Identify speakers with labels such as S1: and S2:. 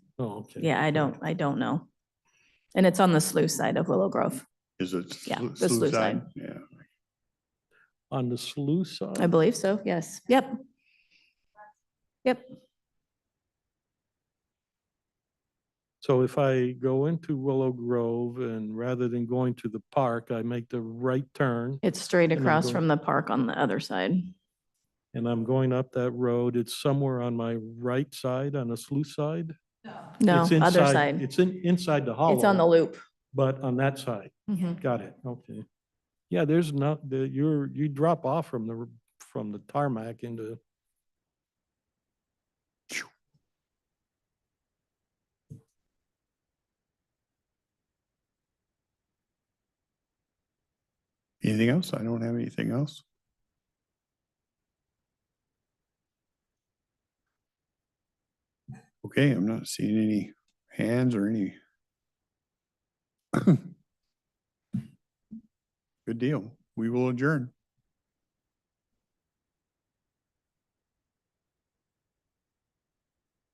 S1: Oh, okay.
S2: Yeah, I don't, I don't know. And it's on the sluice side of Willow Grove,
S3: Is it?
S2: Yeah,
S3: slu-
S2: the sluice side.
S3: side? Yeah.
S1: On the sluice side?
S2: I believe so, yes, yep. Yep,
S1: So if I go into Willow Grove and rather than going to the park, I make the right turn
S2: it's straight
S1: And I'm
S2: across
S1: going-
S2: from the park on the other side.
S1: and I'm going up that road, it's somewhere on my right side, on the sluice side?
S2: No,
S1: It's
S2: other
S1: inside-
S2: side.
S1: It's in, inside the hollow.
S2: It's on the loop.
S1: But on that side,
S2: Mhm.
S1: got it, okay. Yeah, there's not, the, you're, you drop off from the, r- from the tarmac into.
S3: Anything else? I don't have anything else. Okay, I'm not seeing any hands or any. Good deal. We will adjourn.